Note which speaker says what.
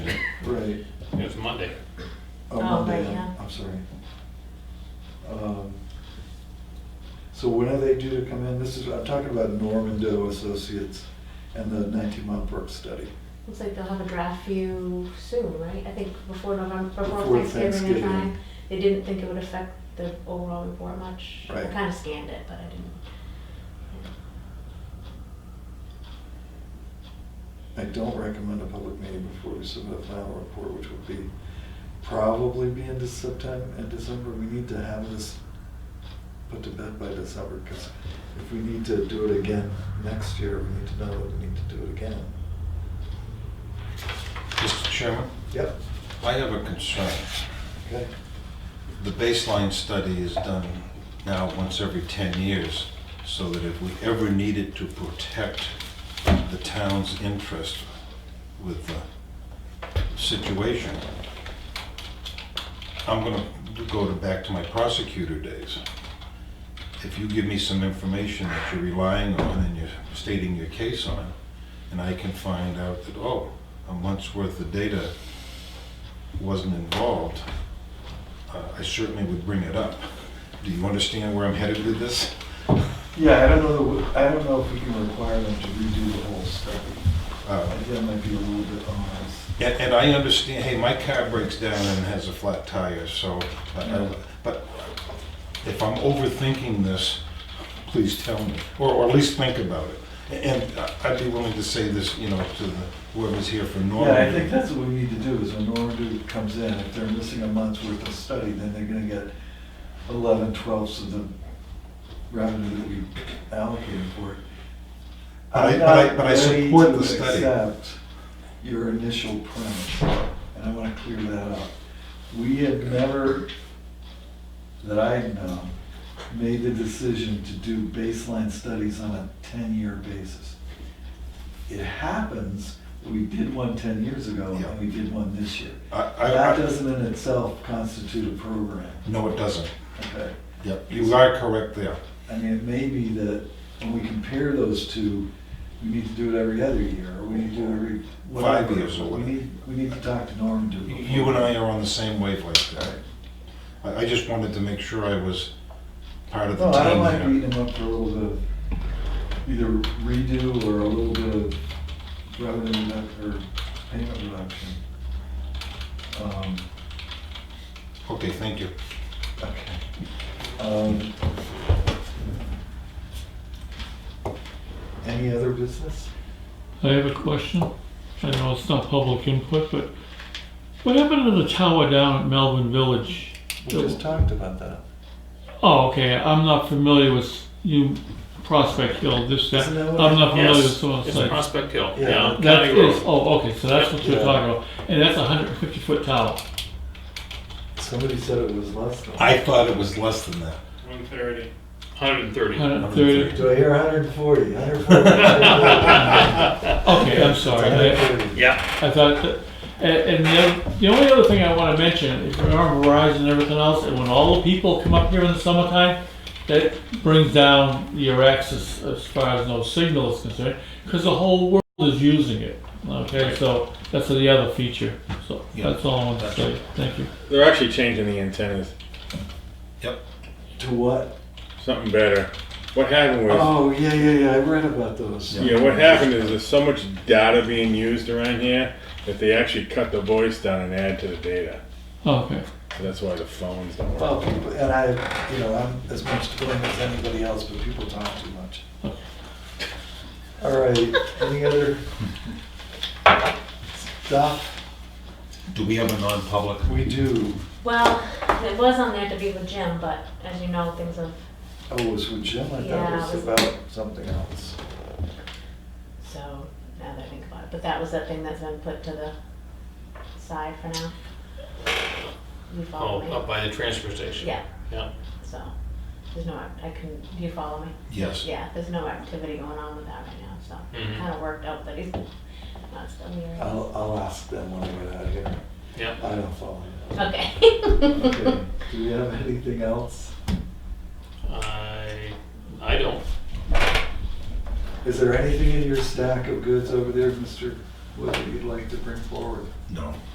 Speaker 1: Right.
Speaker 2: It was Monday.
Speaker 1: Oh,
Speaker 3: Oh,
Speaker 1: Monday,
Speaker 3: right,
Speaker 1: I'm-
Speaker 3: yeah.
Speaker 1: I'm sorry. Um, So when are they due to come in? This is, I'm talking about Norman Doe Associates and the 19-month work study.
Speaker 3: Looks like they'll have a draft for you soon, right? I think before November,
Speaker 1: Before
Speaker 3: before Thanksgiving
Speaker 1: Thanksgiving.
Speaker 3: and time. They didn't think it would affect the overall report much. I
Speaker 1: Right.
Speaker 3: kind of scanned it, but I didn't.
Speaker 1: I don't recommend a public meeting before we submit a final report, which would be, probably be into September and December. We need to have this put to bed by December, because if we need to do it again next year, we need to know that we need to do it again.
Speaker 4: Mr. Chairman,
Speaker 1: Yep,
Speaker 4: I have a concern.
Speaker 1: okay,
Speaker 4: The baseline study is done now once every 10 years, so that if we ever needed to protect the town's interest with the situation, I'm going to go to, back to my prosecutor days. If you give me some information that you're relying on and you're stating your case on, and I can find out that, oh, a month's worth of data wasn't involved, uh, I certainly would bring it up. Do you understand where I'm headed with this?
Speaker 1: Yeah, I don't know, that we- I don't know if we can require them to redo the whole study.
Speaker 4: Uh,
Speaker 1: That might be a little bit onerous.
Speaker 4: And, and I understand, hey, my car breaks down and has a flat tire, so, I- I-
Speaker 1: Yeah.
Speaker 4: but if I'm overthinking this, please tell me, or, or at least think about it. And I- I'd be willing to say this, you know, to the- whoever's here for Norman.
Speaker 1: Yeah, I think that's what we need to do, is when Normandy comes in, if they're missing a month's worth of study, then they're gonna get eleven twelfths of the revenue that we allocated for it.
Speaker 4: But I-
Speaker 1: I'm
Speaker 4: but I-
Speaker 1: not
Speaker 4: but I
Speaker 1: ready
Speaker 4: support
Speaker 1: to
Speaker 4: the study.
Speaker 1: accept Your initial premise, and I wanna clear that up. We had never, that I had known, made the decision to do baseline studies on a ten-year basis. It happens, we did one ten years ago,
Speaker 4: Yeah.
Speaker 1: and we did one this year.
Speaker 4: I, I-
Speaker 1: That
Speaker 4: I,
Speaker 1: doesn't in itself constitute a program,
Speaker 4: no, it doesn't.
Speaker 1: okay?
Speaker 4: Yep, you are correct there.
Speaker 1: I mean, it may be that when we compare those two, we need to do it every other year, or we need to do it every,
Speaker 4: Five
Speaker 1: whatever.
Speaker 4: years or
Speaker 1: We
Speaker 4: whatever.
Speaker 1: need, we need to talk to Norm to.
Speaker 4: You and I are on the same wavelength
Speaker 1: All right.
Speaker 4: there. I, I just wanted to make sure I was part of the
Speaker 1: No,
Speaker 4: team
Speaker 1: I don't mind
Speaker 4: here.
Speaker 1: beating them up for a little bit of either redo or a little bit of revenue reduc- or payment reduction. Um,
Speaker 4: Okay, thank you.
Speaker 1: okay. Um, Any other business?
Speaker 5: I have a question. I know it's not public input, but what happened to the tower down at Melbourne Village?
Speaker 1: We just talked about that.
Speaker 5: Oh, okay, I'm not familiar with you, Prospect Hill, this, that.
Speaker 1: Isn't
Speaker 5: I'm
Speaker 1: that what it-
Speaker 5: not familiar with
Speaker 2: Yes,
Speaker 5: some of the
Speaker 2: it's
Speaker 5: sites.
Speaker 2: Prospect Hill,
Speaker 1: Yeah.
Speaker 2: yeah,
Speaker 5: That
Speaker 2: County
Speaker 5: is,
Speaker 2: Road.
Speaker 5: oh, okay, so that's what
Speaker 1: Yeah.
Speaker 5: you're talking about. And that's a hundred and fifty foot tower.
Speaker 1: Somebody said it was less than.
Speaker 4: I thought it was less than that.
Speaker 6: One thirty.
Speaker 2: 130.
Speaker 5: Hundred and thirty,
Speaker 1: Do I hear hundred and forty? Hundred and forty.
Speaker 5: okay, I'm sorry. I-
Speaker 2: Yeah,
Speaker 5: I thought, that- and, and the, other, the only other thing I want to mention, if you remember Verizon and everything else, and when all the people come up here in the summertime, that brings down your access as far as no signal is concerned, because the whole world is using it. Okay, so that's the other feature. So
Speaker 4: Yeah.
Speaker 5: that's all I want to
Speaker 4: That's
Speaker 5: say. Thank you.
Speaker 6: They're actually changing the antennas.
Speaker 1: To what?
Speaker 6: Something better. What happened was,
Speaker 1: Oh, yeah, yeah, yeah, I read about those.
Speaker 6: yeah, what happened is there's so much data being used around here that they actually cut the voice down and add to the data.
Speaker 5: Okay.
Speaker 6: So that's why the phones don't work.
Speaker 1: Well, people, and I, you know, I'm as much to blame as anybody else, but people talk too much. All right, any other stuff?
Speaker 4: Do we have a non-public?
Speaker 1: We do,
Speaker 3: Well, it was on there to be with Jim, but as you know, things have,
Speaker 1: oh, it was with Jim, I
Speaker 3: Yeah,
Speaker 1: thought it
Speaker 3: it
Speaker 1: was
Speaker 3: was-
Speaker 1: about something else.
Speaker 3: so now that I think about it. But that was that thing that's been put to the side for now. You
Speaker 2: oh,
Speaker 3: follow
Speaker 2: up
Speaker 3: me?
Speaker 2: by the transfer station.
Speaker 3: Yeah,
Speaker 2: Yeah.
Speaker 3: so there's no, act- I can, do you follow me?
Speaker 4: Yes.
Speaker 3: Yeah, there's no activity going on with that right now, so
Speaker 2: Mhm.
Speaker 3: kind of worked out that he's not still here.
Speaker 1: I'll, I'll ask them when we get out of here.
Speaker 2: Yeah.
Speaker 1: I don't follow you.
Speaker 3: Okay.
Speaker 1: Okay, do we have anything else?
Speaker 2: I, I don't.
Speaker 1: Is there anything in your stack of goods over there, Mr. Wood, that you'd like to bring forward?
Speaker 4: No.